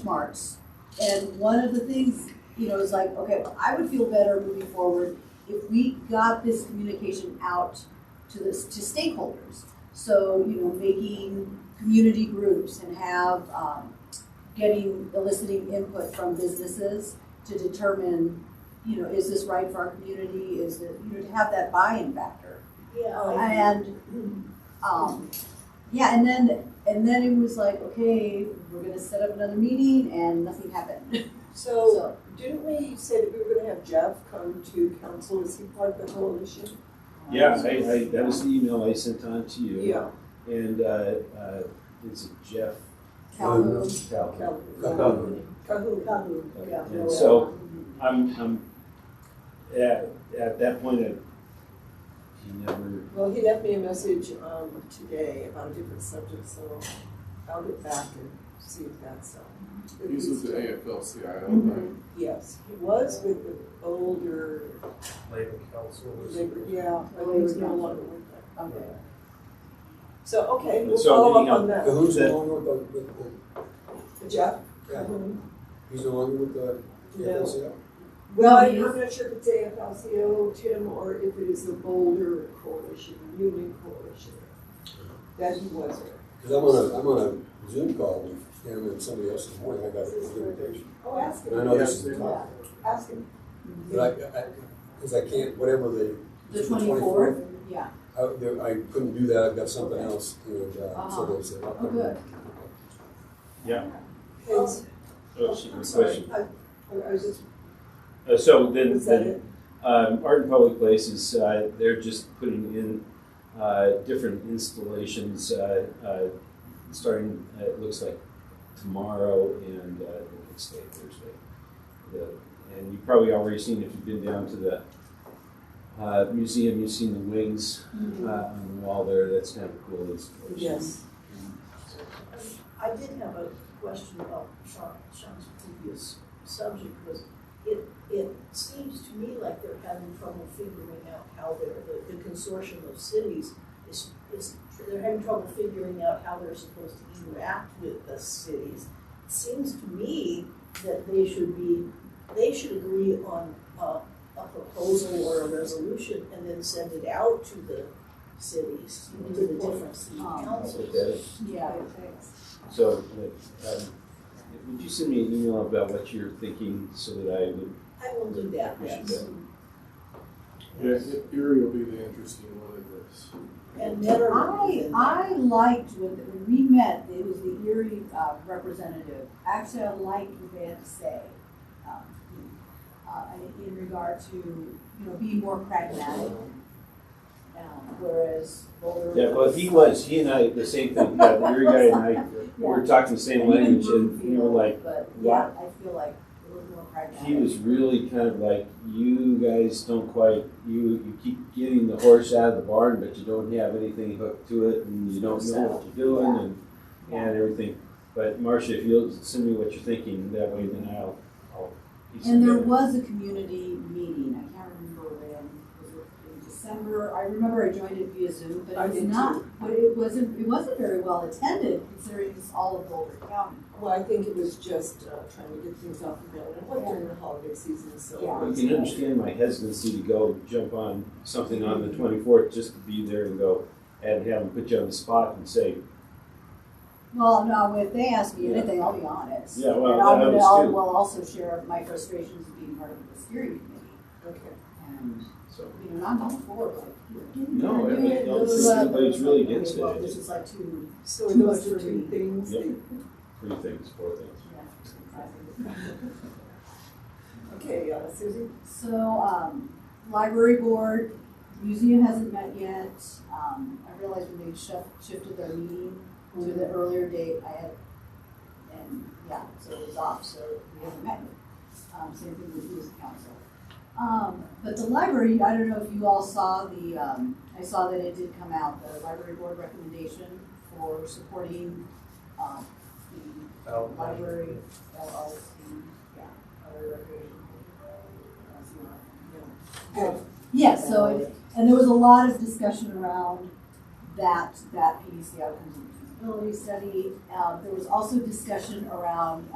benchmarks. And one of the things, you know, is like, okay, well, I would feel better moving forward if we got this communication out to this, to stakeholders. So, you know, making community groups and have, um, getting, eliciting input from businesses to determine, you know, is this right for our community? Is it, you know, to have that buy-in factor. Oh. Oh, Yeah. And, um, yeah, and then, and then it was like, okay, we're gonna set up another meeting and nothing happened. So, So, didn't we say that we were gonna have Jeff come to council, is he part of the coalition? um, Yeah, I, I, that was the email I sent on to you. Yeah. And, uh, uh, is it Jeff? Calhoun, Calhoun. Calhoun, Calhoun. Calhoun, yeah. And so, I'm, I'm, at, at that point, I, he never, Well, he left me a message, um, today about a different subject, so I'll get back and see if that's, um. if He's with the still- AFL-CIO, right? Mhm. Yes, he was with the older labor council is. labor, yeah, but he's no longer with that. okay. So, okay, we'll So, follow anyhow, up on that. Cahoon's That- no longer with, with, with, Jeff? yeah, Calhoun. he's no longer with the No. AFL-CIO. Well, No, I'm you- not sure if it's AFL-CIO, Tim, or if it is the Boulder Coalition, Union Coalition, that he was there. Cause I'm on a, I'm on a Zoom call with him and somebody else this morning, I got an invitation. Oh, ask And I him, know this is the top, ask him. but I, I, cause I can't, whatever the, The The twenty-fourth, yeah, I, there- I couldn't do that, I've got something else, and, uh, so Uh-huh. they said. oh, good. And- oh, she- I'm sorry, question. I, I was just, Uh, so then, was that then it? Um, Art in Public Places, uh, they're just putting in uh, different installations, uh, uh, starting, uh, it looks like tomorrow and uh, the next day, Thursday. The, and you've probably already seen, if you've been down to the uh, museum, you've seen the wings Mm-hmm. uh, on the wall there. That's kind of a cool installation. Yes. I did have a question about Sean, Sean's previous subject, was it, it seems to me like they're having trouble figuring out how they're, the, the consortium of cities is, is, they're having trouble figuring out how they're supposed to interact with the cities. It Seems to me that they should be, they should agree on a, a proposal or a resolution and then send it out to the cities, to the different city Um, I'll councils. look at it. Yeah, thanks. So, uh, um, would you send me an email about what you're thinking so that I would I will do that, appreciate yes. that? Yeah, Erie will be the interesting one of this. And never. I, I liked when, when we met, it was the Erie uh, representative, actually, I liked what they had to say. um, Uh, in- in regard to, you know, being more pragmatic. Um, whereas Boulder. Yeah, well, he was, he and I, the same thing, yeah, the rear guy and I, we were talking the same language, and we were like, But, yeah, I feel like it was more pragmatic. he was really kind of like, you guys don't quite, you, you keep getting the horse out of the barn, but you don't have anything hooked to it, and you don't know what you're doing, and, and everything. But Marcia, if you'll send me what you're thinking, that way then I'll, I'll. piece And there together. was a community meeting, I can't remember when, was it in December? I remember I joined it via Zoom, but I it was did not, but it wasn't, it wasn't very well attended considering it's all of Boulder County. Well, I think it was just, uh, trying to get things off the ground, it was during the holiday season, so. Yeah. You can understand my hesitancy to go jump on something on the twenty-fourth, just to be there and go, and have them put you on the spot and say, Well, no, if they ask me anything, I'll be honest. Yeah, well, And I'll- I was I'll- too. Will also share my frustrations of being part of the steering committee Okay. and, so. you know, not going forward, like, you're getting there, No, you're everybody- getting no, there. this is- everybody's really against Well, it. This is like two, So those are two things, Yep. that- Three things, four things. okay, uh, Susie? So, um, library board, museum hasn't met yet. Um, I realized when they shif- shifted their meeting to the earlier date, I had, and, yeah, so it was off, so we haven't met yet. Um, same thing with youth council. Um, but the library, I don't know if you all saw the, um, I saw that it did come out, the library board recommendation for supporting, um, the out. Library, LLC, yeah, library recreation. That's not- no. Good. Yeah, so, it- and there was a lot of discussion around Um, that, that PDC outcomes and feasibility study. Uh, there was also discussion around